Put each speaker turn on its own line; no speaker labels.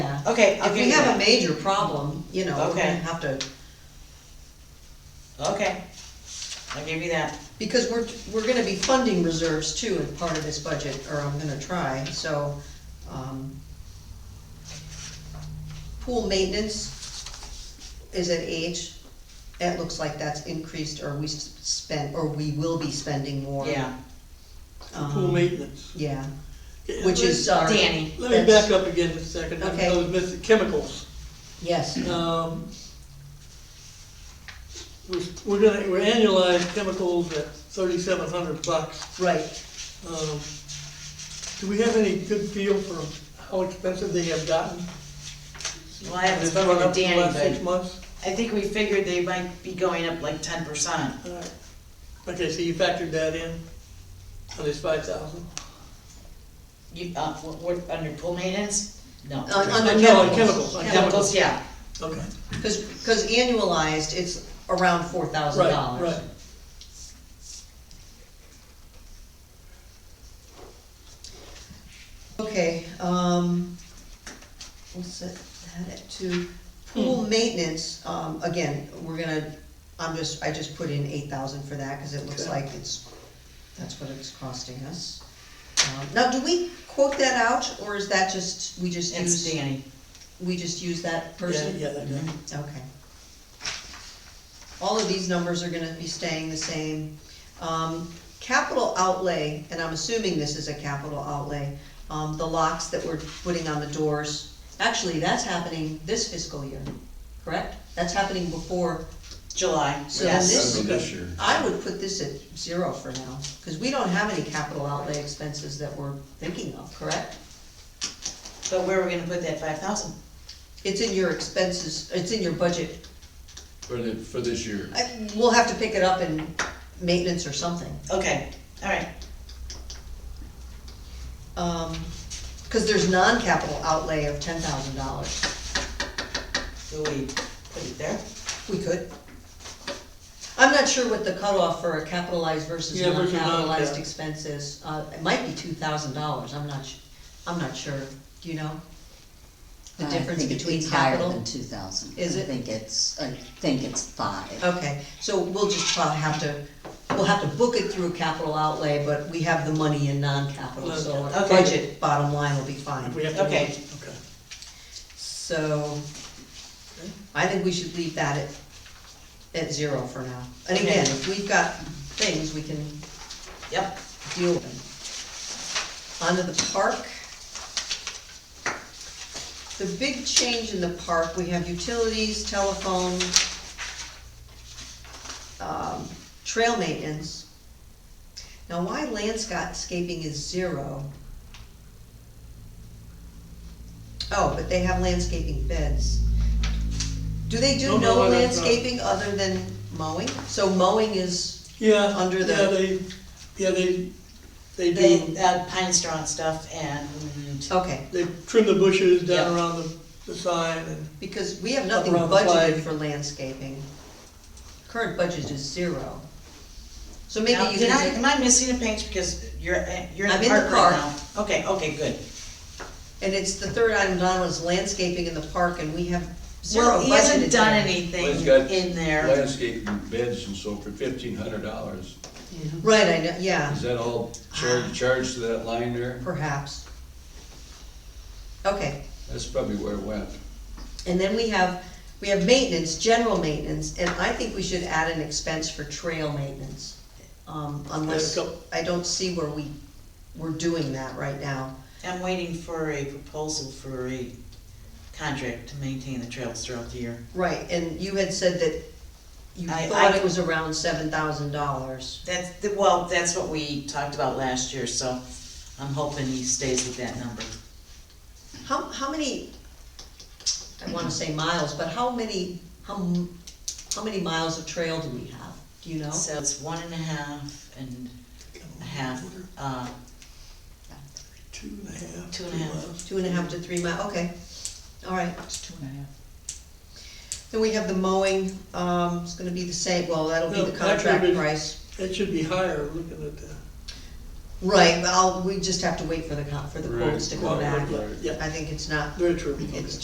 Okay, I'll
If we
give you
have a
that.
major problem, you know, we're gonna
Okay.
have to,
Okay, I'll give you that.
because we're, we're gonna be funding reserves too in part of this budget, or I'm gonna try, so, um, pool maintenance is at age, it looks like that's increased, or we s- spent, or we will be spending more.
Yeah,
Um,
Pool maintenance.
Yeah,
Okay,
which
let-
is our.
Danny.
Let me
that's-
back up again for a second,
Okay.
I was missing chemicals.
Yes,
Um, We're we're gonna, we're annualized chemicals at thirty-seven hundred bucks.
right,
Um, Do we have any good feel for how expensive they have gotten?
well, I haven't
They've gone
spoken
up
to
in the last Six
Danny, but
months?
I think we figured they might be going up like ten percent.
All right. Okay, so you factored that in, on this five thousand?
You, uh, what, what, under pool maintenance? No.
On- on the
No,
chemicals.
on chemicals, on
Chemicals,
chemicals,
yeah,
okay.
cause, cause annualized, it's around four thousand
Right,
dollars.
right.
Okay, um, we'll set that at two.
Hmm.
Pool maintenance, um, again, we're gonna, I'm just, I just put in eight thousand for that, cause it looks
Okay.
like it's, that's what it's costing us. Um, Now, do we quote that out, or is that just, we just
it's
use,
Danny.
we just use that person?
Yeah, yeah, that
Mm-hmm.
guy.
Okay. All of these numbers are gonna be staying the same. Um, capital outlay, and I'm assuming this is a capital outlay, um, the locks that we're putting on the doors, actually, that's happening this fiscal year, correct? That's happening before,
July,
So then
yes.
this-
That's this year.
I would put this at zero for now, cause we don't have any capital outlay expenses that we're thinking of, correct?
But where are we gonna put that five thousand?
It's in your expenses, it's in your budget
For the, for this year.
I, we'll have to pick it up in maintenance or something.
Okay, all right,
Um, cause there's non-capital outlay of ten thousand dollars.
do we put it there?
We could. I'm not sure what the cutoff for a capitalized versus
Yeah, versus
non-capitalized
non-cap.
expense is. Uh, it might be two thousand dollars, I'm not, su- I'm not sure. Do you know? The
I
difference
think it-
between
it's higher
capital?
than two thousand.
Is it?
I think it's, I think it's five.
Okay, so we'll just probably have to, we'll have to book it through capital outlay, but we have the money in non-capital, so our
Okay.
budget bottom line will be fine.
If we have to.
Okay.
Okay.
So, I think we should leave that at, at zero for now. And again, if we've got things, we can
Yep,
deal with them. Onto the park. The big change in the park, we have utilities, telephone, um, trail maintenance. Now, why landscaping is zero? Oh, but they have landscaping beds. Do they
No,
do
no,
no
no, that's not-
landscaping other than mowing? So mowing is,
Yeah,
Under
yeah,
the-
they, yeah, they, they
they,
do,
uh, pine straw and stuff and
okay,
they trim the bushes down
Yeah.
around the, the sign and,
because we have nothing
Up around the
budgeted
flag.
for landscaping. Current budget is zero. So maybe
Now,
you
did I,
can,
am I missing a page, because you're, uh, you're in
I'm
the
in the
park
car.
right now? Okay, okay, good.
and it's the third item down was landscaping in the park and we have zero budgeted.
Well, he hasn't done
there.
anything
Well, he's got
in there.
Landscaping beds and so for fifteen hundred dollars.
Right, I know, yeah,
Is that all charged, charged to that line there?
perhaps. Okay,
That's probably where it went.
and then we have, we have maintenance, general maintenance, and I think we should add an expense for trail maintenance. Um, unless,
There's a couple.
I don't see where we, we're doing that right now.
I'm waiting for a proposal for a contract to maintain the trails throughout the year.
Right, and you had said that you
I-
thought
I-
it was around seven thousand dollars.
That's, the- well, that's what we talked about last year, so I'm hoping he stays with that number.
How, how many, I wanna say miles, but how many, how, m- how many miles of trail do we have? Do you know?
So it's one and a half and a half, uh,
two and a half.
Two and a half.
miles.
Two and a half to three mile, okay, all right.
It's two and a half.
Then we have the mowing, um, it's gonna be the same, well, that'll be
No,
the
that
contract
would be-
price.
That should be higher, looking at the.
Right, but I'll, we just have to wait for the, con- for the
Right,
quotes to
well,
come back.
Yeah,
I think it's not,
very true.
it's